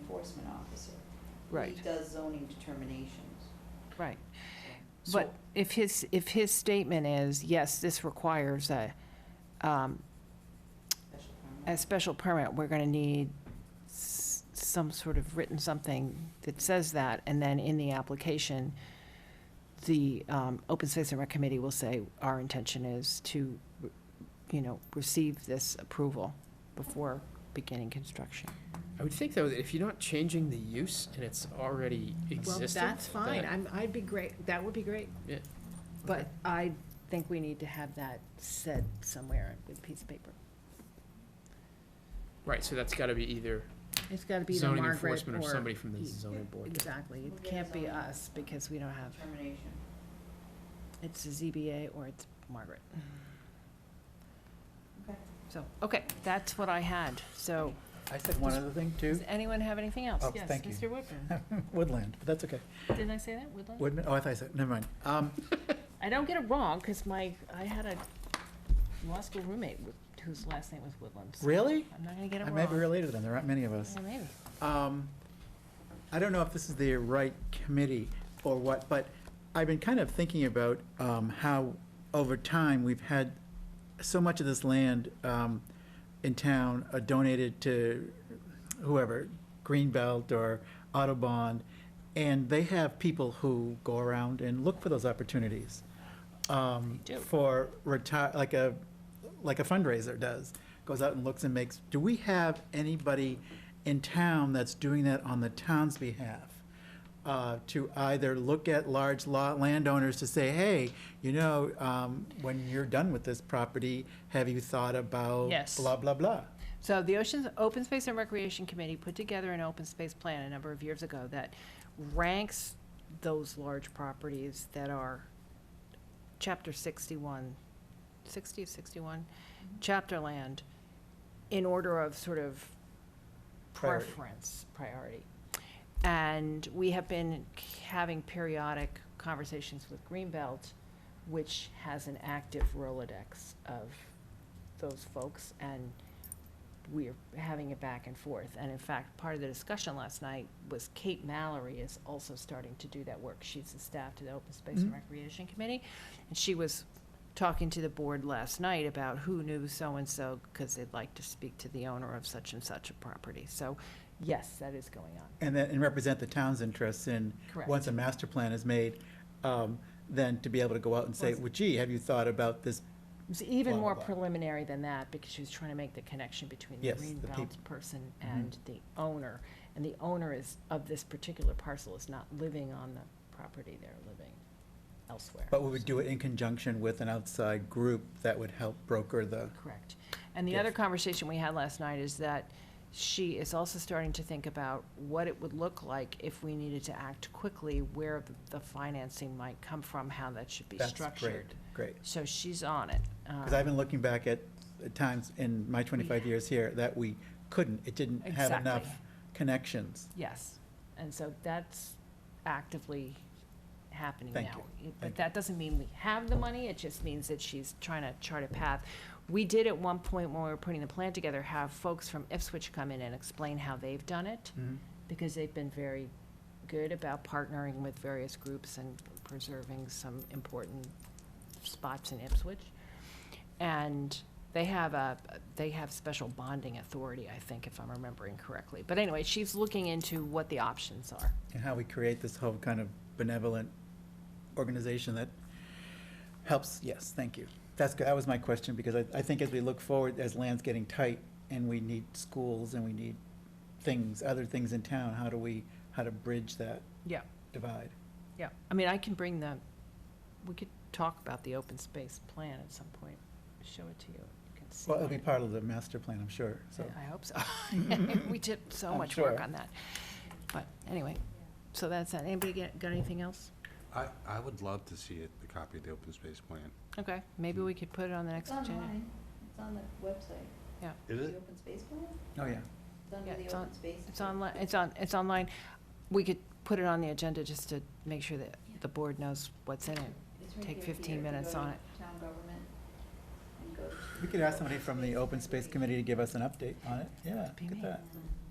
enforcement officer. Right. He does zoning determinations. right. so. But if his, if his statement is, yes, this requires a, um, Special a permit. special permit, we're gonna need s- some sort of written something that says that, and then in the application, the um, Open Space and Rec Committee will say, our intention is to, you know, receive this approval before beginning construction. I would think though that if you're not changing the use and it's already Well, existing. that's fine, that- I'm, I'd be great, that would be great. yeah, But I think we need to have that said somewhere with a piece of paper. Right, so that's gotta be either It's gotta be the zoning Margaret enforcement or or, somebody from the zoning board. exactly, We'll it get can't a be, zoning us, because we don't have, Determination. it's the ZBA or it's Margaret. Okay. So, okay, that's what I had, so, I said one other thing too, does anyone have anything else? Oh, thank you. Uh, Yes, Mr. Woodburn, Woodland, but that's okay. didn't I say that, Woodland? Woodland, oh, I thought I said, never mind. Um, I don't get it wrong, because my, I had a law school roommate with- whose last name was Woodland. so Really? I'm not gonna get it I wrong. may be related to them, there aren't many of us. Yeah, maybe. Um, I don't know if this is the right committee or what, but I've been kind of thinking about um, how, over time, we've had so much of this land um, in town uh, donated to whoever, Greenbelt or Autobond, and they have people who go around and look for those opportunities. um, They do. For retire, like a, like a fundraiser does, goes out and looks and makes. Do we have anybody in town that's doing that on the town's behalf? uh, to either look at large lot landowners to say, hey, you know, um, when you're done with this property, have you thought about Yes. blah, blah, blah? So the Oceans, Open Space and Recreation Committee put together an open space plan a number of years ago that ranks those large properties that are chapter sixty-one, sixty, sixty-one, chapter land, in order of sort of Priority. preference, priority. And we have been having periodic conversations with Greenbelt, which has an active Rolodex of those folks, and we're having it back and forth. And in fact, part of the discussion last night was Kate Mallory is also starting to do that work. She's the staff to the Open Space and Mhm. Recreation Committee. And she was talking to the board last night about who knew so-and-so, because they'd like to speak to the owner of such and such a property. So, yes, that is going on. And then, and represent the town's interests in, Correct. once a master plan is made, um, then to be able to go out and say, Once- well, gee, have you thought about this? It was even Blah, more blah, blah. preliminary than that, because she was trying to make the connection between the Yes, the green belt peop- person Mhm. and the owner. And the owner is, of this particular parcel, is not living on the property, they're living elsewhere. But we would do it in conjunction with an outside group that would help broker the, Correct. And the other Yes. conversation we had last night is that she is also starting to think about what it would look like if we needed to act quickly, where the financing might come from, how that should be that's great, structured. great. So she's on it. Because I've been looking back at at times in my 25 years here that we couldn't, it didn't have enough Um, Exactly. connections. Yes, and so that's actively happening Thank now. It- Thank But you. that doesn't mean we have the money, it just means that she's trying to chart a path. We did at one point, when we were putting the plan together, have folks from Ipswich come in and explain how they've done it, Mhm. because they've been very good about partnering with various groups and preserving some important spots in Ipswich. And they have a, they have special bonding authority, I think, if I'm remembering correctly. But anyway, she's looking into what the options are. And how we create this whole kind of benevolent organization that helps, yes, thank you. That's, good. that was my question, because I, I think as we look forward, as land's getting tight, and we need schools, and we need things, other things in town, how do we, how to bridge that Yeah. divide? Yeah. I mean, I can bring the, we could talk about the open space plan at some point, show it to you, you can see. Well, it'll it. be part of the master plan, I'm sure, so. I hope so. We did so I'm much work sure. on that. But anyway, so that's, that. anybody get- got anything else? I, I would love to see it, the copy of the open space plan. Okay, maybe we could put it on the next It's agenda. online, it's on the website. Is The open space plan? Oh, yeah. It's under Yeah, the it's on- open space. It's online, it's on, it's online. We could put it on the agenda just to make sure that the board knows what's in it. It's right Take here, 15 Peter. If you go minutes to on it. Town government and go to. We could ask somebody from the open space committee to give us an update on it, yeah, Be look me. at that. Um,